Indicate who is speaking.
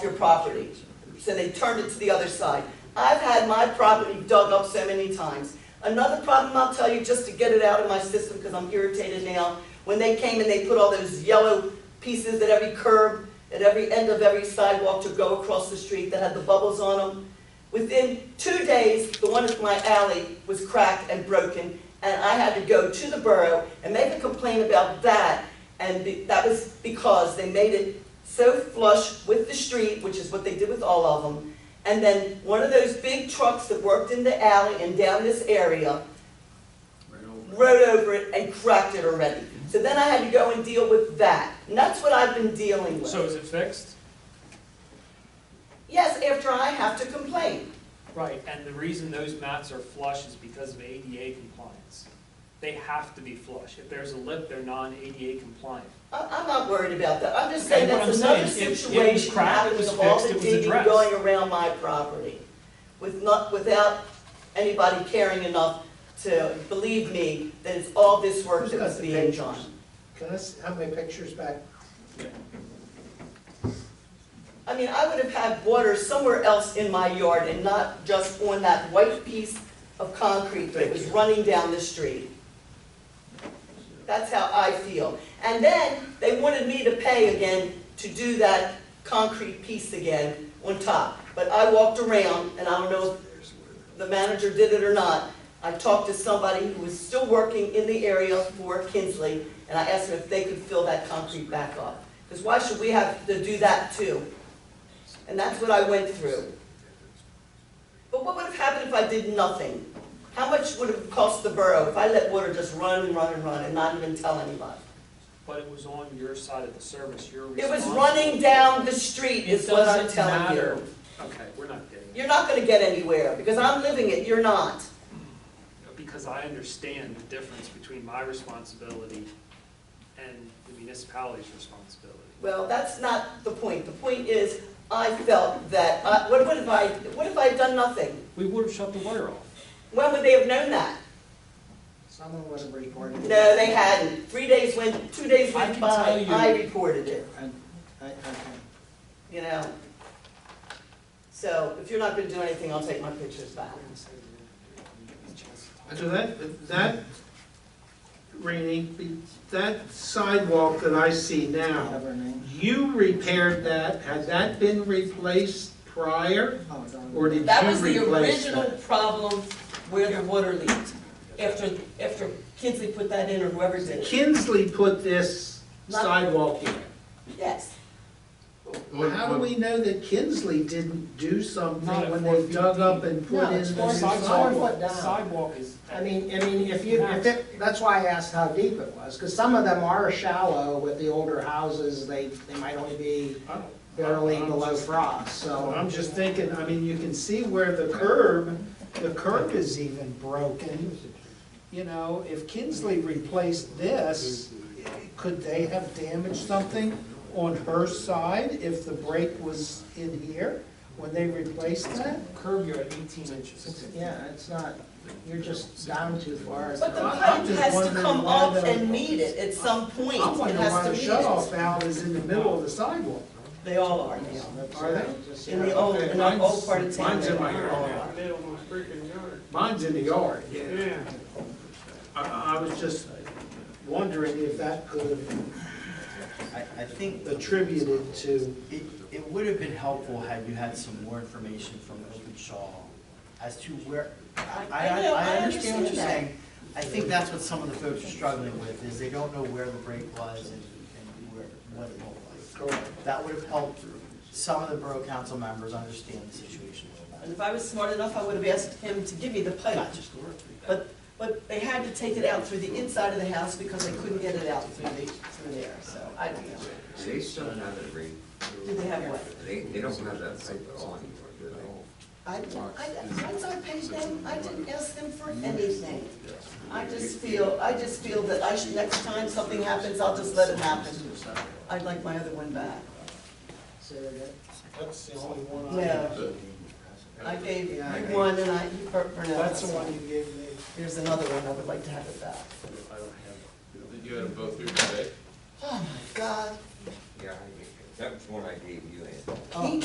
Speaker 1: your property. So they turned it to the other side. I've had my property dug up so many times. Another problem I'll tell you, just to get it out of my system, because I'm irritated now, when they came and they put all those yellow pieces at every curb, at every end of every sidewalk to go across the street that had the bubbles on them, within two days, the one at my alley was cracked and broken, and I had to go to the borough and make a complaint about that and be- that was because they made it so flush with the street, which is what they did with all of them. And then one of those big trucks that worked in the alley and down this area
Speaker 2: Right over.
Speaker 1: rode over it and cracked it already. So then I had to go and deal with that. And that's what I've been dealing
Speaker 3: So
Speaker 1: with.
Speaker 3: is it fixed?
Speaker 1: Yes, after I have to complain.
Speaker 3: Right, and the reason those mats are flush is because of ADA compliance. They have to be flush. If there's a lip, they're non-ADA compliant.
Speaker 1: I- I'm not worried about that. I'm just
Speaker 3: Okay,
Speaker 1: saying
Speaker 3: what
Speaker 1: that's
Speaker 3: I'm
Speaker 1: another
Speaker 3: saying, it- it was
Speaker 1: situation
Speaker 3: cracked, it
Speaker 1: happening
Speaker 3: was
Speaker 1: of all
Speaker 3: fixed,
Speaker 1: the
Speaker 3: it was
Speaker 1: digging
Speaker 3: addressed.
Speaker 1: going around my property with not, without anybody caring enough to believe me that it's all this work
Speaker 2: Who's
Speaker 1: that
Speaker 2: got
Speaker 1: was
Speaker 2: the
Speaker 1: being
Speaker 2: pictures?
Speaker 1: done.
Speaker 2: Can I s- have my pictures back?
Speaker 1: I mean, I would have had water somewhere else in my yard and not just on that white piece of concrete that
Speaker 2: Thank
Speaker 1: was
Speaker 2: you.
Speaker 1: running down the street. That's how I feel. And then they wanted me to pay again to do that concrete piece again on top. But I walked around, and I don't know if the manager did it or not. I talked to somebody who was still working in the area for Kinsley, and I asked them if they could fill that concrete back up. Because why should we have to do that too? And that's what I went through. But what would have happened if I did nothing? How much would it have cost the borough if I let water just run and run and run and not even tell anybody?
Speaker 3: But it was on your side of the service, you're
Speaker 1: It was
Speaker 3: responsible.
Speaker 1: running down the street
Speaker 3: It
Speaker 1: is what I'm
Speaker 3: doesn't
Speaker 1: telling
Speaker 3: matter.
Speaker 1: you.
Speaker 3: Okay, we're not getting it,
Speaker 1: You're not gonna get anywhere, because I'm living it, you're not.
Speaker 3: because I understand the difference between my responsibility and the municipality's responsibility.
Speaker 1: Well, that's not the point. The point is, I felt that, I- what what if I, what if I had done nothing?
Speaker 3: We would have shut the water off.
Speaker 1: When would they have known that?
Speaker 2: Someone would have reported. it.
Speaker 1: No, they hadn't. Three days went, two days
Speaker 3: I
Speaker 1: went
Speaker 3: can tell
Speaker 1: by,
Speaker 3: you-
Speaker 1: I reported it.
Speaker 2: And, I, okay.
Speaker 1: you know? So if you're not gonna do anything, I'll take my pictures back.
Speaker 4: And So that, that, Rainey, that sidewalk that I see
Speaker 2: Have
Speaker 4: now,
Speaker 2: her name.
Speaker 4: you repaired that, had that been replaced prior?
Speaker 2: Oh, it's on-
Speaker 4: Or did
Speaker 1: That
Speaker 4: you
Speaker 1: was the
Speaker 4: replace
Speaker 1: original
Speaker 4: that?
Speaker 1: problem where the water leaked, after, after Kinsley put that in or whoever did it.
Speaker 4: Kinsley put this
Speaker 1: Not-
Speaker 4: sidewalk in.
Speaker 1: Yes,
Speaker 4: How do we know that Kinsley didn't do
Speaker 3: Not
Speaker 4: something
Speaker 3: at
Speaker 4: when
Speaker 3: four
Speaker 4: they dug
Speaker 3: feet
Speaker 4: up
Speaker 3: deep.
Speaker 4: and put
Speaker 2: No,
Speaker 4: in
Speaker 2: it's
Speaker 4: the
Speaker 2: four
Speaker 4: new
Speaker 2: feet. It's
Speaker 4: sidewalk?
Speaker 2: four foot down.
Speaker 3: Sidewalk is.
Speaker 2: I mean, I mean, if you, if it, that's why I asked how deep it was, because some of them are shallow with the older houses, they, they might only be
Speaker 4: I don't-
Speaker 2: barely
Speaker 4: I'm
Speaker 2: below
Speaker 4: just-
Speaker 2: frost, so.
Speaker 4: I'm just thinking, I mean, you can see where the curb, the curb is even broken. You know, if Kinsley replaced this, could they have damaged something on her side if the break was in here when they replaced that?
Speaker 3: Curb yard eighteen inches.
Speaker 2: Yeah, it's not, you're just down too far.
Speaker 1: but the
Speaker 4: I'm
Speaker 1: pipe
Speaker 4: just
Speaker 1: has to
Speaker 4: wondering
Speaker 1: come
Speaker 4: why
Speaker 1: up
Speaker 4: the-
Speaker 1: and meet it at some point,
Speaker 4: I'm
Speaker 1: it
Speaker 4: wondering
Speaker 1: has
Speaker 4: why
Speaker 1: to
Speaker 4: the
Speaker 1: meet
Speaker 4: shut-off
Speaker 1: it.
Speaker 4: valve is in the middle of the sidewalk.
Speaker 1: They all are now,
Speaker 4: Are they?
Speaker 1: in the old, in the old part of town.
Speaker 4: Mine's in my
Speaker 1: they all are.
Speaker 4: yard.
Speaker 5: Middle of the freaking yard.
Speaker 4: Mine's in the yard, yeah.
Speaker 5: Yeah.
Speaker 4: I, I was just wondering if that could have
Speaker 6: I, I think the tr-
Speaker 4: attributed to
Speaker 6: it, it would have been helpful had you had some more information from Openshaw as to where, I, I,
Speaker 1: I know, I
Speaker 6: I understand
Speaker 1: understand
Speaker 6: what you're
Speaker 1: that.
Speaker 6: saying. I think that's what some of the folks are struggling with, is they don't know where the break was and, and where, what it looked like. That would have helped some of the borough council members understand the situation a
Speaker 1: And
Speaker 6: little
Speaker 1: if I was smart enough, I would have asked him to give me the
Speaker 6: better.
Speaker 1: pipe.
Speaker 6: Not just Laura.
Speaker 1: But, but they had to take it out through the inside of the house because they couldn't get it out through the, through there, so I don't know.
Speaker 7: They still don't have that ring.
Speaker 1: Do they have what?
Speaker 7: They, they don't have that type at all anymore, do they?
Speaker 1: I, I, once I paid them, I didn't ask them for anything. I just feel, I just feel that I should, next time something happens, I'll just let it happen. I'd like my other one back.
Speaker 2: That's the only one
Speaker 1: Yeah, I gave you
Speaker 2: Yeah, I gave-
Speaker 1: one and I, you per- per- no,
Speaker 2: That's the one you gave me.
Speaker 1: Here's another one, I would like to have it back.
Speaker 8: Did you had them both here today?
Speaker 1: Oh, my God.
Speaker 7: Yeah, I- that was one I gave you, Ann.
Speaker 1: He